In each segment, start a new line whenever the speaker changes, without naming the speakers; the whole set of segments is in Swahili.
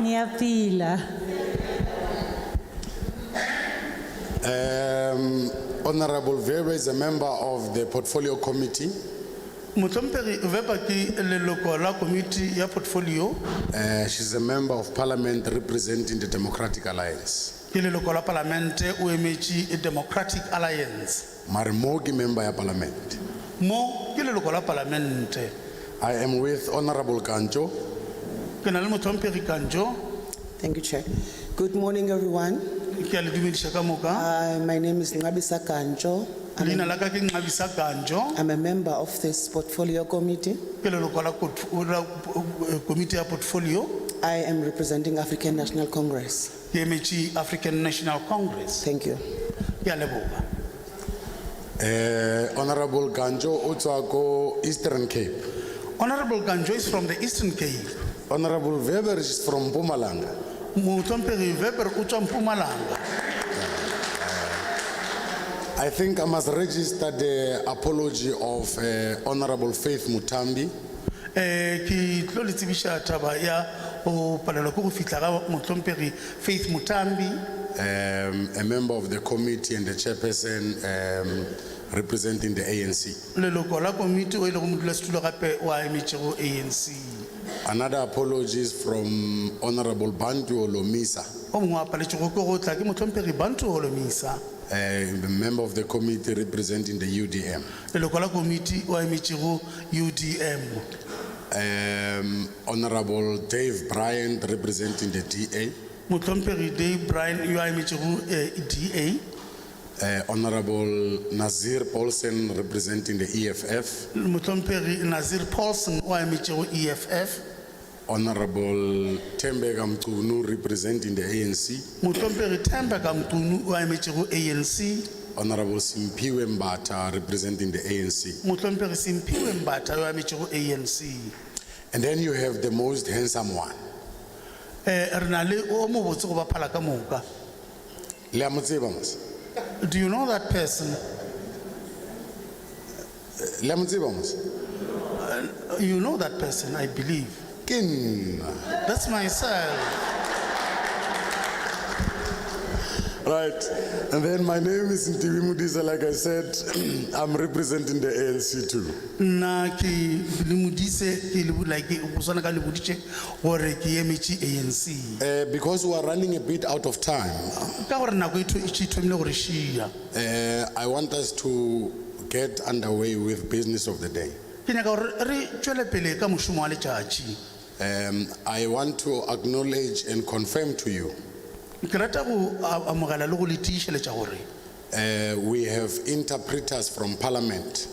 ni ya pila
Um, Honorable Vera is a member of the Portfolio Committee.
motlhomphegi vepa ke leloko la komiti ya portfolio
Uh, she's a member of parliament representing the Democratic Alliance.
ke leloko la palamente o emetse democratic alliance
Marimogi member ya parliament.
mo ke leloko la palamente
I am with Honorable Kancho.
ke na le motlhomphegi kanjo
Thank you, Chair. Good morning, everyone.
ke a le dumediša ka moka
Uh, My name is Ngabisa Kanjo.
leina la ka ke nxabisa kanjo
I'm a member of this portfolio committee.
ke leloko la kot- la, eh, komiti ya portfolio
I am representing African National Congress.
ke emetse african national congress
Thank you.
ke a leboga
Uh, Honorable Kancho Utsuako, Eastern Cape.
honorable kanjo is from the eastern cape
Honorable Weber is from Pumalanga.
motlhomphegi veper o tswa mpumalanga
I think I must register the apology of uh, Honorable Faith Mutambi.
Eh, ke tlo le tsebiša taba ya go palelwa ke go fitlha ga motlhomphegi faith motambi
um, a member of the committee and the chairperson um, representing the ANC.
leloko la komiti o ile go modulasetulo gape wa emetšego anc
Another apology is from Honorable Bantu Olomisa,
o mongwe a paletšego ke go tla ke motlhomphegi bantu holomisa
a member of uh, the committee representing the UDM.
leloko la komiti o emetšego udm
Um, Honorable Dave Bryant representing the DA,
motlhomphegi day brian yo a emetšego eh, da
uh, Honorable Nazir Paulsen representing the E EFF,
motlhomphegi nazir paulson o a E emetšego eff
Honorable Tembeka Mkunu representing the ANC,
motlhomphegi tembeka mtunu o a emetšego anc
Honorable Simpiwe Mbata representing the ANC.
motlhomphegi semphiwe mbatha yo a emetšego anc
And then you have the most handsome one.
Eh, re na le o mo botse go baphala ka moka.
Le a mo tseba mos?
Do you know that person?
Le a mo tseba mos?
You know that person, I believe.
Ke nna.
That's myself.
Right. And then my name is Ntivi Mudisa. Like I said, I'm representing the ANC too.
Nna ke le modise ke le like go swana ka le boditse gore ke emetše ANC.
Uh, because we are running a bit out of time,
Ka gore nako e tho- e tše thomile gore shia.
uh, I want us to get underway with business of the day.
Ke nyaka gore re tšwele pele ka mošomo wa letšatši.
Um, I want to acknowledge and confirm to you
Ke rata go a- amogela le go le tiišeletša gore
uh, we have interpreters from Parliament.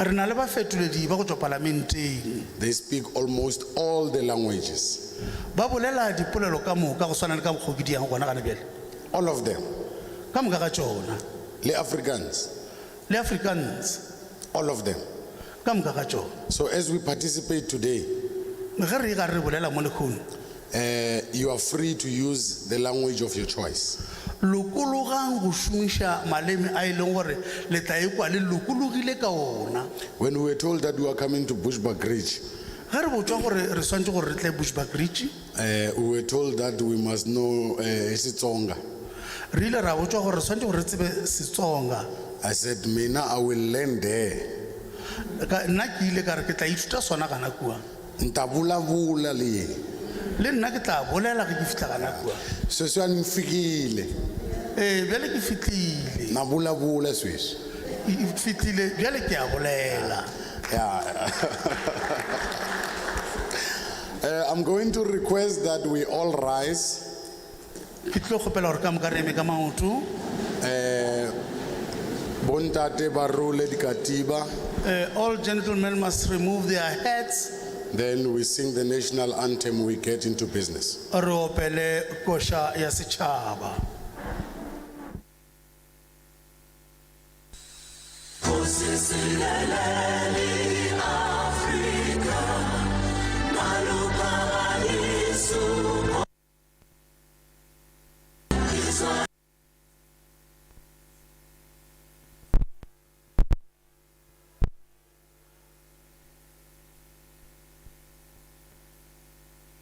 re na le bafetoledi ba go tswa palamenteng
They speak almost all the languages,
ba bolela dipolelo ka moka go swana le ka bokgokediang gona gane bjale
all of them.
ka moka ga tsona
Le Africans.
le africans
all of them.
ka moka ga tsona
So as we participate today,
ge re e ka re bolela mo lekgono
uh, you are free to use the language of your choice.
lokologang go šomiša maleme a e leng gore le tla ekwa le lokologile ka ona
When we were told that we were coming to Bushbuck Ridge,
ge re botswa gore re swantse gore re tle bushback ridge
uh, we were told that we must know uh, Sitsonga.
re ile ra botswa gore re swantse gore re tsebe setsonga
I said, Mina, I will learn there.
Ka- nna ke ile ka re ke tla ithuta sona gana kua
Ntabulavula le.
le nna ke tla bolela ge ke fitlha gana kua
Sweswi a ni fikile.
ee bjale ke fitlile
Na vulavula sweswi.
Ke fitlile bjale ke a bolela
Yeah. Uh, I'm going to request that we all rise.
ke tlo kgopela gore ka moka re eme ka maoto
Bontate barule di katiba.
Uh, all gentlemen must remove their hats.
Then we sing the national anthem, we get into business.
Re opele kosha ya sechaba.